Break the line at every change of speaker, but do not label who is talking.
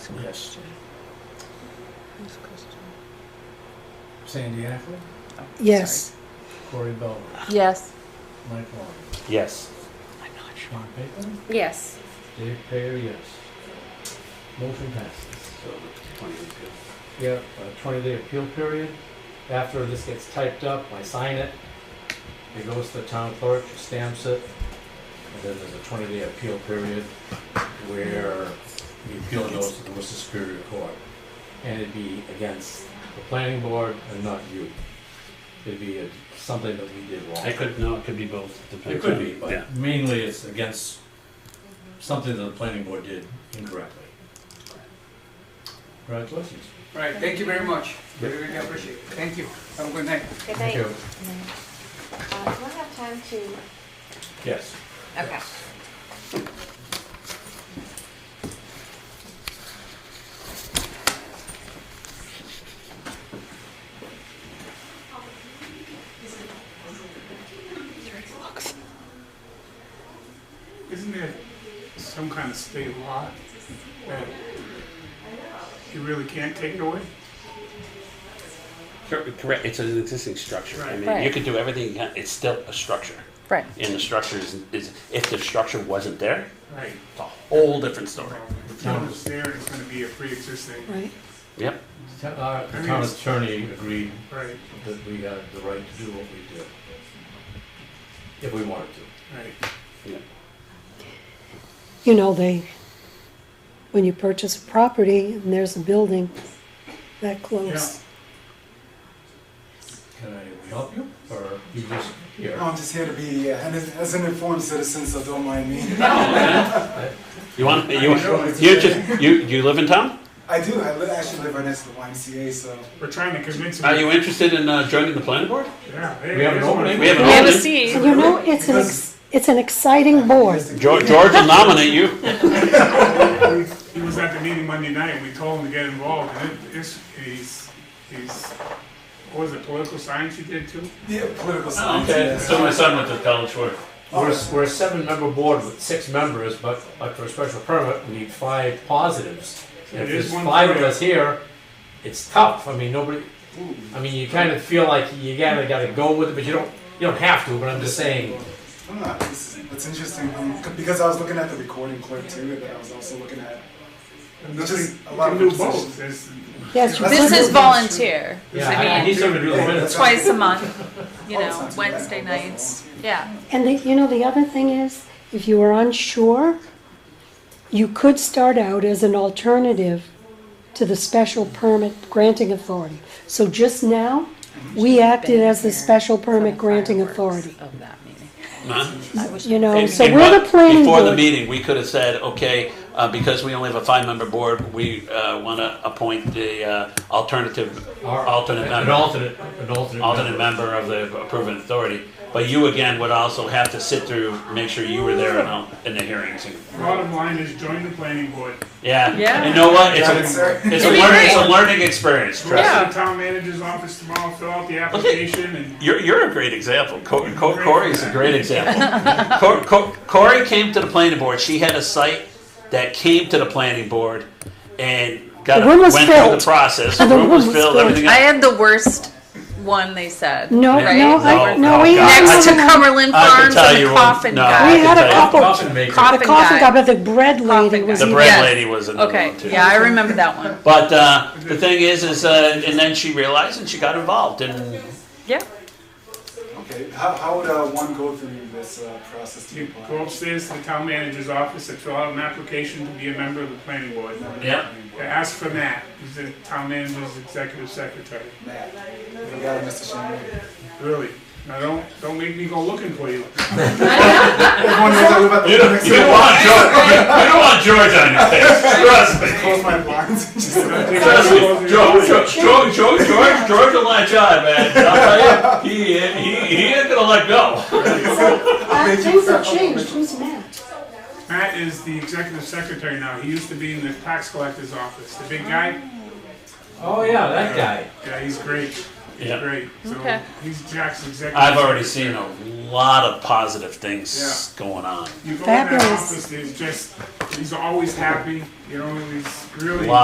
Yes.
Next question.
Sandy Ackley,
Yes.
Corey Belvin,
Yes.
Mike Long,
Yes.
I'm not sure.
Sean Payton,
Yes.
Dave Payer, yes. Motion passes.
So the twenty would be-
We have a twenty-day appeal period. After this gets typed up, I sign it. It goes to the town clerk, she stamps it. And then there's a twenty-day appeal period where the appeal goes to the Worcester Superior Court. And it'd be against the planning board and not you. It'd be a- something that we did wrong.
I could, no, it could be both. depends
It could
on-
be,
Yeah.
but mainly it's against something that the planning board did incorrectly. Congratulations.
All right, thank you very much. Really, really appreciate it. Thank you. Have a good night.
Good night. Um, Do I have time to,
Yes.
okay.
Isn't there some kind of state law that you really can't take it away?
Cor- Correct, it's an existing structure. I mean, you
Right.
could do everything, you can- it's still a structure.
Right.
And the structure is, is, if the structure wasn't there,
Right.
it's a whole different story.
If no one's there, it's gonna be a pre-existing,
Right?
Yep,
Ta- Uh, Our the town attorney agreed
right,
that we had the right to do what we did. If we wanted to.
right.
yep.
You know, they, when you purchase a property and there's a building that close.
Can I help you? Or you just here?
No, I'm just here to be, uh, and as as an informed citizen, so don't mind me.
You want, you,
know, it's
you
okay.
just, you, you live in town?
I do, I li- actually live right next to the YMCA, so.
We're trying to convince them.
Are you interested in uh, joining the planning board?
Yeah. hey,
We have an
here's one.
opening?
We have
We
an
have a
opening.
seat.
You know, it's an, ex- it's an exciting board.
George, George will nominate you.
He was at the meeting Monday night, and we told him to get involved, and it- it's, he's, he's, what was it, political science you did too?
Yeah, political science. yes.
my son went to college for.
We're, we're a seven-member board with six members, but, but for a special permit, we need five positives. And if
It is
there's
one
five of
third.
us here, it's tough, I mean, nobody, I mean, you kind of feel like you gotta, gotta go with it, but you don't, you don't have to, but I'm just saying,
I'm not, this is, that's interesting, um, c- because I was looking at the recording clerk too, and then I was also looking at.
And
This
nothing-
is a
you
lot
can
of
do
positions.
both. There's-
Yes, you-
This is volunteer.
yeah,
I
I I
mean-
need somebody to do the
Yeah,
minutes.
that's-
Twice a month, you
Oh, it's
know,
not too bad.
Wednesday nights. Yeah.
and the, you know, the other thing is, if you are unsure, you could start out as an alternative to the special permit granting authority. So just now, we acted as the special permit granting authority,
Of that meeting.
you know,
And-
Oh, so
and
we're the
but
planning
Before the
board.
meeting, we could have said, okay, uh, because we only have a five-member board, we want to appoint the uh, alternative,
Or-
alternate
An
member,
alternate, an alternate.
alternate
member.
member of the approving authority. But you again would also have to sit through, make sure you were there in all- in the hearings. and-
Bottom line is join the planning board.
Yeah,
Yeah.
and you know what? It's
Got
a,
it, sir.
it's a learning, it's a learning experience, trust
Yeah.
me.
Go to the town manager's office tomorrow, fill out the application, and
You're, you're a great example. Co- Co- Corey is a great example. Co- Co- Corey came to the planning board. She had a site that came to the planning board and got
The room was
went through
filled.
the process.
The
room was
room was
filled.
filled.
Everything
I
else.
had the worst one they said.
No,
right?
no, I,
No,
no, we
no,
had.
I
Next to
one-
Cumberland
I can
Farms
tell
and the
you-
coffin
no.
We
guy.
had a
Coffin
couple,
Coffin maker.
the
Coffin
coffin guy,
guy.
but the bread lady
Coffin
was
the
guy.
even
bread
Yes.
lady was another
Okay,
one too.
yeah, I remember that one.
But uh, the thing is, is uh, and then she realized and she got involved and
Yeah.
Okay, how, how would, uh, one go through this, uh, process to
You
apply?
go upstairs to the town manager's office and fill out an application to be a member of the planning board.
yeah.
To ask for Matt, who's the town manager's executive secretary.
Matt, you got it, Mr. Shannon.
Really, now don't, don't make me go looking for you.
Everyone knows I live at the. next door.
want George. You don't want George on your face. Trust me.
Close my blinds and just.
Trust me, George, George, George, George, George, George will latch on, man. I'll tell you, he, he, he ain't gonna let go.
Uh, Things have changed, who's Matt?
Matt is the executive secretary now, he used to be in the tax collector's office, the big guy,
Oh, yeah, that guy.
yeah, he's great, he's
Yeah.
great. So,
Okay.
he's Jack's executive.
I've already seen a lot of positive things going on.
You go in that
Fabulous.
office, he's just, he's always happy, you know, he's really.
Wow.